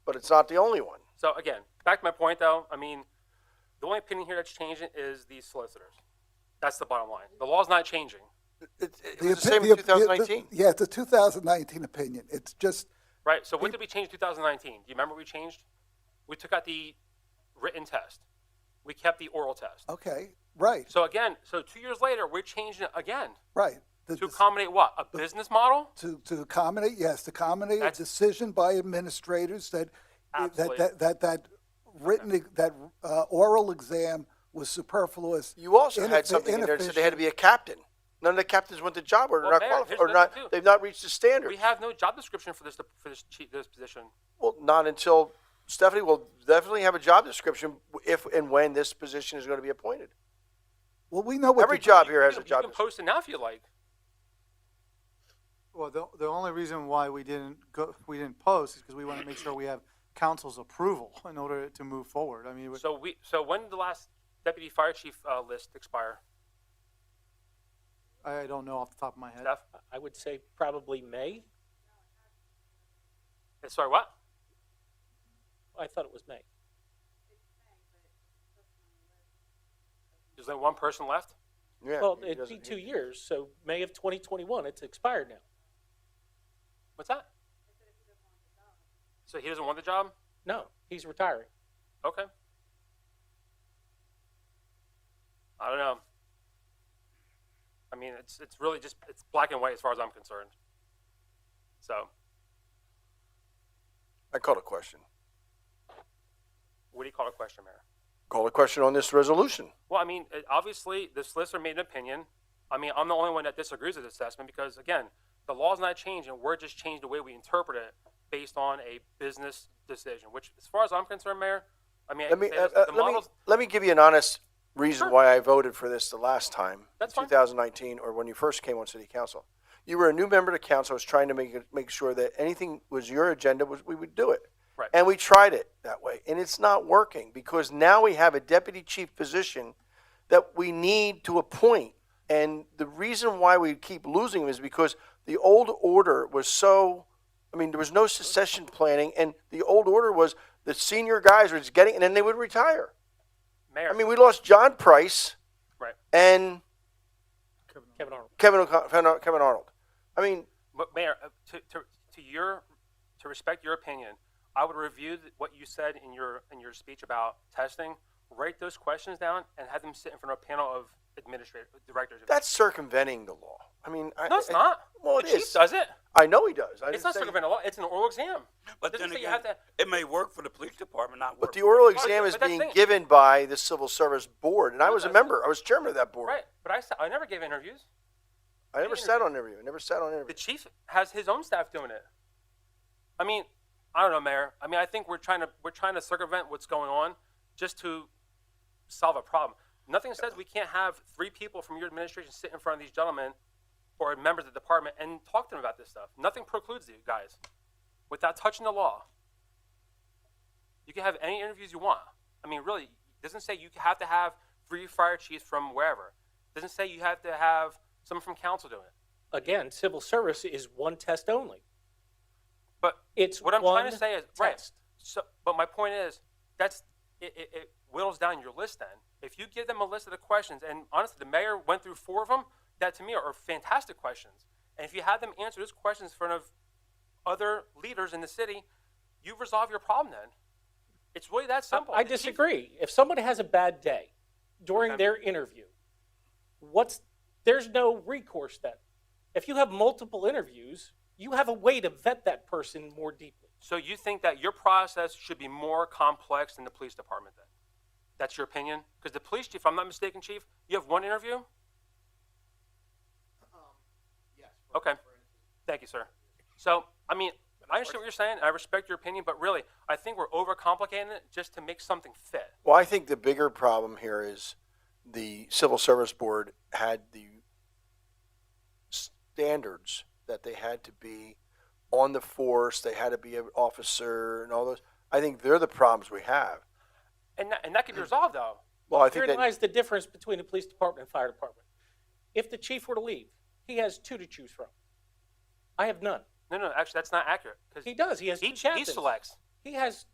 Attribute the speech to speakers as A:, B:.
A: but it's not the only one.
B: So again, back to my point though, I mean, the only opinion here that's changing is the solicitors. That's the bottom line. The law's not changing.
A: It, it was the
C: opi-
A: same in
C: op- the-
A: 2019.
C: Yeah, it's a 2019 opinion. It's just,
B: Right, so what did we change in 2019? Do you remember what we changed? We took out the written test. We kept the oral test.
C: okay, right,
B: So again, so two years later, we're changing it again
C: right. The
B: to
C: dec-
B: accommodate what? A business model?
C: To, to accommodate, yes, to accommodate a
B: That's-
C: decision by administrators that, that,
B: Absolutely.
C: that, that, that written, that uh, oral exam was superfluous.
A: You also had
C: ineffi-
A: something in there that said they
C: inefficient.
A: had to be a captain. None of the captains went to job or
B: Well,
A: not
B: there,
A: qualified,
B: here's
A: or
B: another
A: not.
B: too.
A: They've not reached the standard.
B: We have no job description for this for this, chi- this position.
A: Well, not until Stephanie will definitely have a job description if and when this position is going to be appointed.
C: Well, we know what.
A: Every
C: the-
A: job here has
B: you
A: a
B: can,
A: job Mm-hmm.
B: You can post it now if you like.
D: Well, the, the only reason why we didn't go, we didn't post is because we want to make sure we have council's approval in order to move forward. I mean, we-
B: So we so when did the last deputy fire chief uh, list expire?
D: I don't know off the top of my head.
B: Steph,
E: I would say probably May.
B: Uh, sorry, what?
E: I thought it was May.
B: There's only one person left.
A: Yeah,
E: Well,
A: he
E: it'd be
A: doesn't-
E: two years, so May of 2021, it's expired now.
B: What's that? So he doesn't want the job.
E: No, he's retiring.
B: Okay. I don't know. I mean, it's it's really just it's black and white as far as I'm concerned. So,
A: I called a question.
B: what do you call a question, Mayor?
A: Called a question on this resolution.
B: Well, I mean, it- obviously, the solicitor made an opinion. I mean, I'm the only one that disagrees with this assessment because, again, the law's not changing. We're just changing the way we interpret it based on a business decision, which, as far as I'm concerned, Mayor, I mean, I
A: Let
B: can
A: me
B: say
A: uh,
B: this,
A: uh,
B: the
A: let me
B: models,
A: let me give you an honest reason
B: Sure.
A: why I voted for this the last time,
B: That's fine.
A: 2019, or when you first came on City Council. You were a new member to council. I was trying to make it, make sure that anything was your agenda was we would do it.
B: Right.
A: And we tried it that way, and it's not working because now we have a deputy chief position that we need to appoint. And the reason why we keep losing them is because the old order was so, I mean, there was no succession planning, and the old order was the senior guys were just getting, and then they would retire.
B: Mayor,
A: I mean, we lost John Price
B: right.
A: and
E: Kevin Arnold.
A: Kevin O'Con- Kevin Kevin Arnold. I mean,
B: But Mayor, uh, to, to, to your, to respect your opinion, I would review th- what you said in your, in your speech about testing, write those questions down and have them sit in front of a panel of administrative directors.
A: that's circumventing the law. I mean, I,
B: No, it's
A: I-
B: not.
A: Well,
B: The
A: it
B: chief
A: is.
B: does it.
A: I know he does. I
B: It's
A: didn't
B: not
A: say-
B: circumventing the law. It's an oral exam.
F: But
B: Doesn't
F: then
B: say
F: again,
B: you have to.
F: it may work for the police department, not work.
A: But the oral
B: Right,
A: exam
B: but
A: is
B: that's
A: being
B: the thing.
A: given by the Civil Service Board, and I
B: No,
A: was a
B: that's-
A: member. I was chairman of that board.
B: Right, but I, sa- I never gave interviews.
A: I never sat on interview. I never sat on
B: The
A: interview.
B: chief has his own staff doing it. I mean, I don't know, Mayor. I mean, I think we're trying to we're trying to circumvent what's going on just to solve a problem. Nothing says we can't have three people from your administration sit in front of these gentlemen or members of the department and talk to them about this stuff. Nothing precludes you guys without touching the law. You can have any interviews you want. I mean, really, it doesn't say you have to have three fire chiefs from wherever. It doesn't say you have to have someone from council doing it.
E: Again, civil service is one test only.
B: But
E: It's
B: what I'm trying to
E: one
B: say is right.
E: test.
B: So, but my point is that's it, it, it whittles down your list. Then, if you give them a list of the questions, and honestly, the mayor went through four of them. That to me are, are fantastic questions. And if you have them answer those questions in front of other leaders in the city, you resolve your problem. Then, it's really that simple.
E: I
B: The chief-
E: disagree. If somebody has a bad day during
B: Okay.
E: their interview, what's there's no recourse then. If you have multiple interviews, you have a way to vet that person more deeply.
B: So you think that your process should be more complex than the police department? Then, that's your opinion. Because the police chief, if I'm not mistaken, chief, you have one interview. Okay. Thank you, sir. So, I mean, I understand what you're saying. and I respect your opinion, but really, I think we're overcomplicating it just to make something fit.
A: Well, I think the bigger problem here is the Civil Service Board had the standards that they had to be on the force, they had to be an officer and all those. I think they're the problems we have.
B: And that, and that could be resolved, though.
A: Well, I think
E: Herein
A: that
E: lies the difference between the police department and fire department. If the chief were to leave, he has two to choose from. I have none.
B: No, no, actually, that's not accurate. 'cause
E: He does. He has
B: He,
E: two captains.
B: he selects.
E: He has